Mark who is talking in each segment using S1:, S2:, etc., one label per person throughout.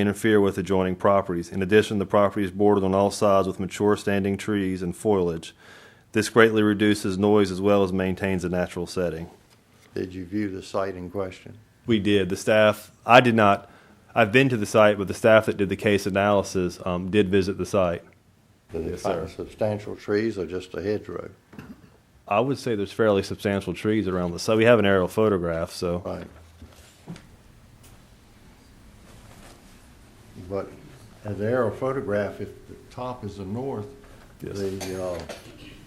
S1: interfere with adjoining properties. In addition, the property is bordered on all sides with mature standing trees and foliage. This greatly reduces noise as well as maintains a natural setting.
S2: Did you view the site in question?
S1: We did. The staff, I did not, I've been to the site, but the staff that did the case analysis um, did visit the site.
S2: Did they
S1: Yes, sir.
S2: find substantial trees or just a hedgerow?
S1: I would say there's fairly substantial trees around the site. We have an aerial photograph, so.
S2: Right. But at the aerial photograph, if the top is the north,
S1: Yes.
S2: the uh,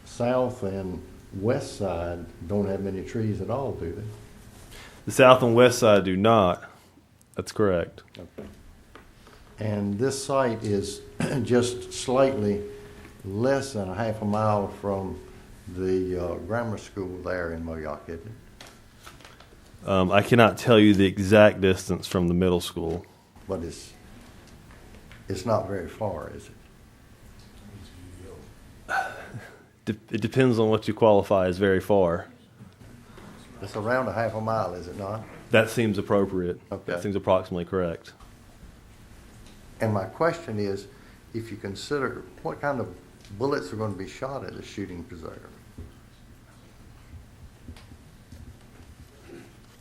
S2: south and west side don't have many trees at all, do they?
S1: The south and west side do not. That's correct.
S2: And this site is just slightly less than a half a mile from the uh, grammar school there in Moayock, isn't it?
S1: Um, I cannot tell you the exact distance from the middle school.
S2: But it's, it's not very far, is it?
S1: De- it depends on what you qualify as very far.
S2: It's around a half a mile, is it not?
S1: That seems appropriate.
S2: Okay.
S1: That seems approximately correct.
S2: And my question is, if you consider, what kind of bullets are going to be shot at a shooting preserve?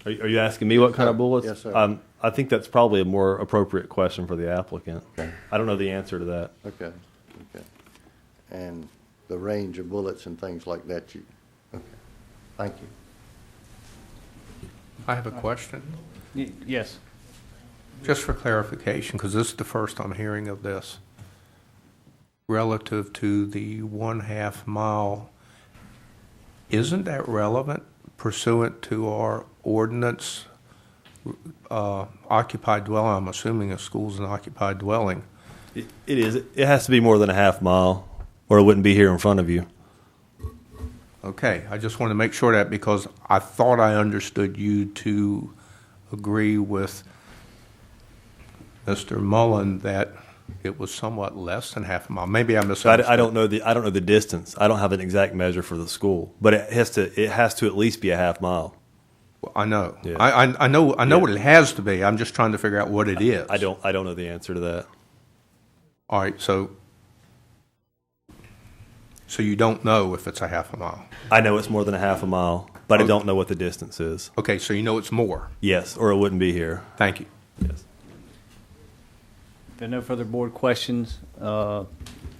S1: Are, you- are you asking me what kind of
S2: Sir.
S1: bullets?
S2: Uh, Yes, sir.
S1: Um, I think that's probably a more appropriate question for the applicant.
S2: Okay.
S1: I don't know the answer to that.
S2: Okay, okay. And the range of bullets and things like that, you, okay, thank you.
S3: I have a question,
S4: Y- Yes.
S3: just for clarification, because this is the first I'm hearing of this. Relative to the one-half mile, isn't that relevant pursuant to our ordinance? uh, Occupied dwelling, I'm assuming a school's an occupied dwelling.
S1: It, it is. It has to be more than a half mile, or it wouldn't be here in front of you.
S3: Okay, I just want to make sure that because I thought I understood you to agree with Mr. Mullen that it was somewhat less than half a mile. Maybe I
S1: So
S3: misunderstood.
S1: I, I don't know the I don't know the distance. I don't have an exact measure for the school, but it has to it has to at least be a half mile.
S3: I know.
S1: Yeah.
S3: I, I, I know. I know
S1: Yeah.
S3: what it has to be. I'm just trying to figure out what it is.
S1: I don't I don't know the answer to that.
S3: All right. So, so you don't know if it's a half a mile.
S1: I know it's more than a half a mile,
S2: Oh.
S1: but I don't know what the distance is.
S3: Okay. So you know it's more.
S1: Yes, or it wouldn't be here.
S3: Thank you.
S1: Yes.
S4: If there are no further board questions uh,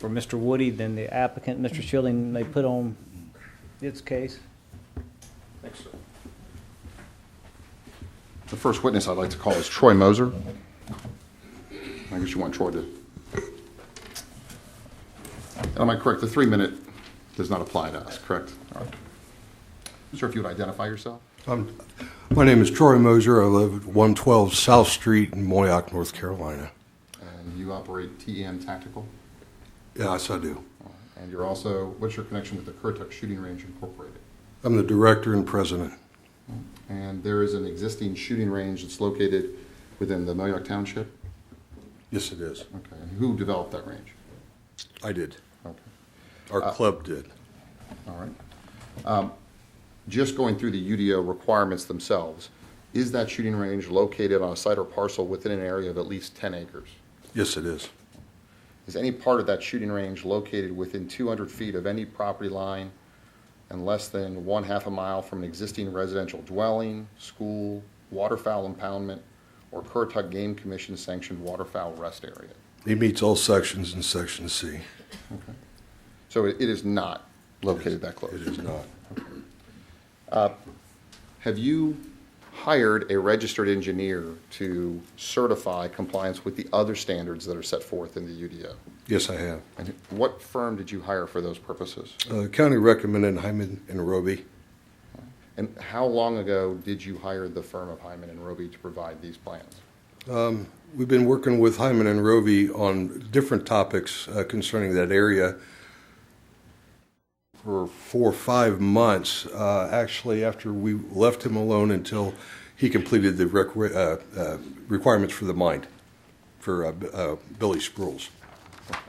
S4: for Mr. Woody, then the applicant, Mr. Schilling, may put on its case.
S5: The first witness I'd like to call is Troy Moser. I guess you want Troy to. And Am I correct? The three-minute does not apply to us, correct? All right. Sir, if you would identify yourself?
S6: Um, My name is Troy Moser. I live at 112 South Street in Moyock, North Carolina.
S5: And you operate TEM Tactical?
S6: Yes, I do.
S5: And you're also, what's your connection with the Currituck Shooting Range Incorporated?
S6: I'm the director and president.
S5: And there is an existing shooting range that's located within the Moyoc Township?
S6: Yes, it is.
S5: Okay, and who developed that range?
S6: I did.
S5: Okay.
S6: Our club did.
S5: All right. Um, Just going through the UDO requirements themselves, is that shooting range located on a site or parcel within an area of at least 10 acres?
S6: Yes, it is.
S5: Is any part of that shooting range located within 200 feet of any property line and less than one half a mile from an existing residential dwelling, school, waterfowl impoundment, or Currituck Game Commission sanctioned waterfowl rest area?
S6: He meets all sections in Section C.
S5: So it it is not located that close?
S6: It is not.
S5: Have you hired a registered engineer to certify compliance with the other standards that are set forth in the UDO?
S6: Yes, I have.
S5: And what firm did you hire for those purposes?
S6: Uh, The county recommended Hyman and Roby
S5: And how long ago did you hire the firm of Hyman and Roby to provide these plans?
S6: We've been working with Hyman and Roby on different topics uh, concerning that area for four or five months, uh, actually, after we left him alone until he completed the requ- uh, uh, requirements for the mind for uh, B- uh, Billy Spruels.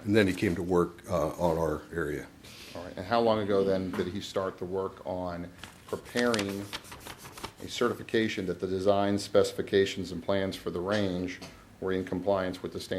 S6: And then he came to work uh, on our area.
S5: All right, and how long ago then did he start the work on preparing a certification that the design specifications and plans for the range
S2: were in compliance with the standards